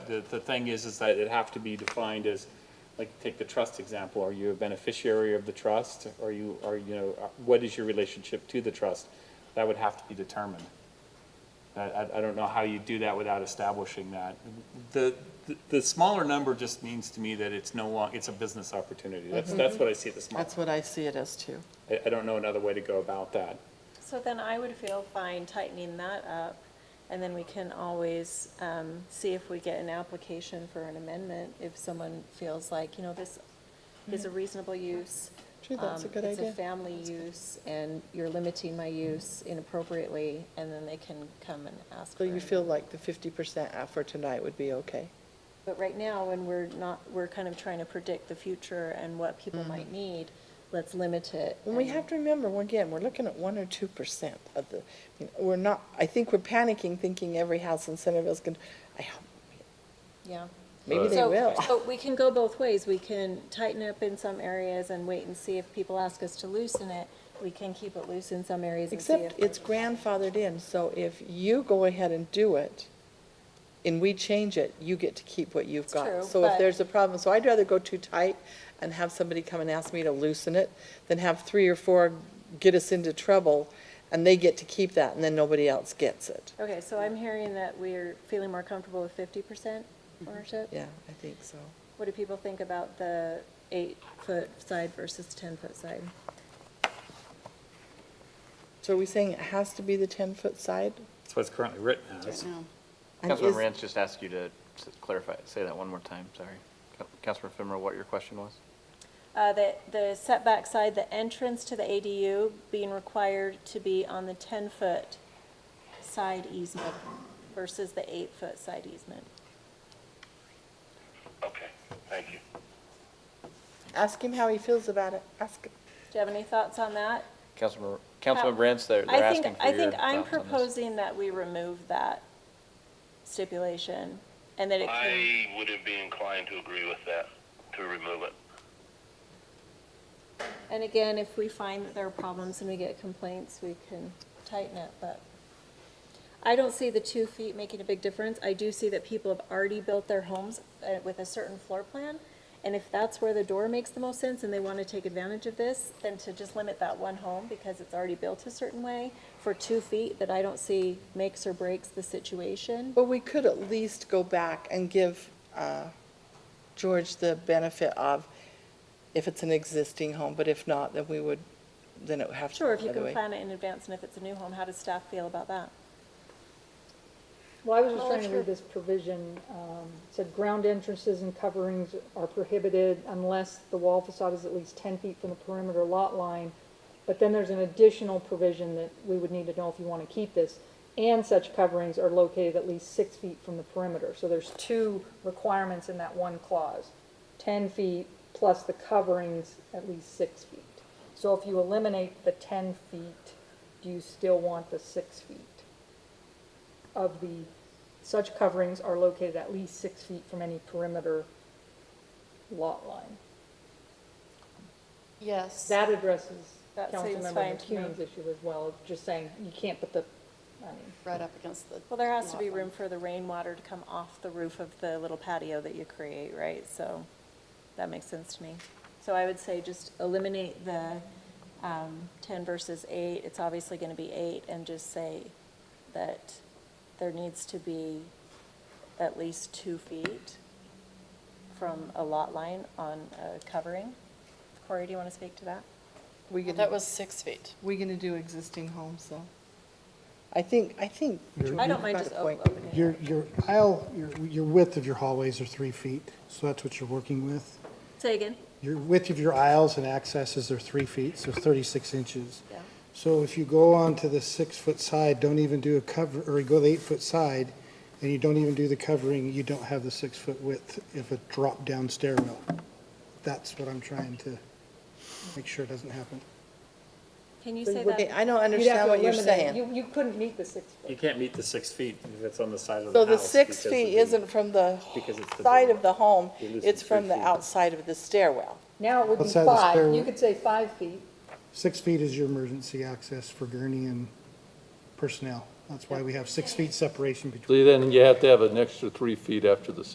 the, the thing is, is that it have to be defined as, like, take the trust example, are you a beneficiary of the trust? Are you, are, you know, uh, what is your relationship to the trust? That would have to be determined. I, I, I don't know how you do that without establishing that. The, the- the smaller number just means to me that it's no long, it's a business opportunity. That's, that's what I see the small. Mm-hmm. That's what I see it as too. I, I don't know another way to go about that. So then I would feel fine tightening that up, and then we can always um, see if we get an application for an amendment, if someone feels like, you know, this is a reasonable use. Mm-hmm. Gee, that's a um, good Mm-hmm. It's idea. a family use, and you're limiting my use inappropriately, and then they can come and ask So for you an- feel like the 50% for tonight would be okay? But right now, when we're not, we're kind of trying to predict the future and what people might need, let's limit it. And we and- have to remember, Mm-hmm. well, again, we're looking at 1 or 2% of the, we're not, I think we're panicking, thinking every house in Centerville's going, to I hope, Yeah. maybe they So- will. So we can go both ways. We can tighten up in some areas and wait and see if people ask us to loosen it. We can keep it loose in some areas and see if. Except it's grandfathered in, so if you go ahead and do it, and we change it, you get to keep what you've It's got. true, So if but- there's a problem, so I'd rather go too tight and have somebody come and ask me to loosen it than have three or four get us into trouble, and they get to keep that, and then nobody else gets it. Okay, so I'm hearing that we're feeling more comfortable with fifty percent ownership? Mm-hmm. Yeah, I think so. What do people think about the eight-foot side versus ten-foot side? So are we saying it has to be the 10-foot side? That's what's currently written as. And Councilmember is- Rance just asked you to s- clarify, say that one more time, sorry. Coun- Councilmember Fimmer, what your question was? Uh, the, the setback side, the entrance to the ADU being required to be on the ten-foot side easement versus the eight-foot side easement. Okay, thank you. Ask him how he feels about it. Ask him. Do you have any thoughts on that? Councilmember, Councilmember Rance, they're, they're Uh, I think- asking for your thoughts I think I'm on this. proposing that we remove that stipulation and that it can, I wouldn't be inclined to agree with that, to remove it. and again, if we find that there are problems and we get complaints, we can tighten it, but I don't see the two feet making a big difference. I do see that people have already built their homes uh, with a certain floor plan. And if that's where the door makes the most sense and they want to take advantage of this, then to just limit that one home because it's already built a certain way for two feet that I don't see makes or breaks the situation. But we could at least go back and give uh, George the benefit of, if it's an existing home, but if not, then we would, then it would have to. Sure, if go you the can way. plan it in advance, and if it's a new home, how does staff feel about that? Well, I was just Oh, trying to sure. read this provision, um, it said ground entrances and coverings are prohibited unless the wall facade is at least ten feet from the perimeter lot line. But then there's an additional provision that we would need to know if you want to keep this. And such coverings are located at least six feet from the perimeter. So there's two requirements in that one clause. Ten feet plus the coverings at least six feet. So if you eliminate the ten feet, do you still want the six feet? of the, such coverings are located at least six feet from any perimeter lot line. Yes. That addresses That seems Councilmember fine to me. McCune's issue as well, of just saying you can't put the, I mean, Right up against the. Well, there has to be lot line. room for the rainwater to come off the roof of the little patio that you create, right? So that makes sense to me. So I would say just eliminate the um, 10 versus 8. It's obviously going to be 8, and just say that there needs to be at least 2 feet from a lot line on a covering. Corey, do you want to speak to that? We Well, gonna- That was six feet. We gonna do existing homes, though? I think, I think. George, I you've don't mind got just a o- point. opening it. Your, your aisle, your, your width of your hallways are three feet, so that's what you're working with. Say again? Your width of your aisles and accesses are three feet, so thirty-six inches. Yeah. So if you go on to the six-foot side, don't even do a cover, or you go the eight-foot side, and you don't even do the covering, you don't have the six-foot width if a drop-down stairwell. That's what I'm trying to make sure doesn't happen. Can you So say we're getting- that? I don't you'd have understand to what you're eliminate- saying. You, you couldn't meet the six You foot. can't meet the six feet if it's on the side of the So house. the six because of feet the- isn't from the because it's the side door. of the home, You're losing it's from three the feet. outside of the stairwell. Now it would be Outside the five, you stairwell. could say five feet, Six feet is your emergency access for gurney and personnel. That's why we have six feet separation between See, then you have to have an extra three feet after the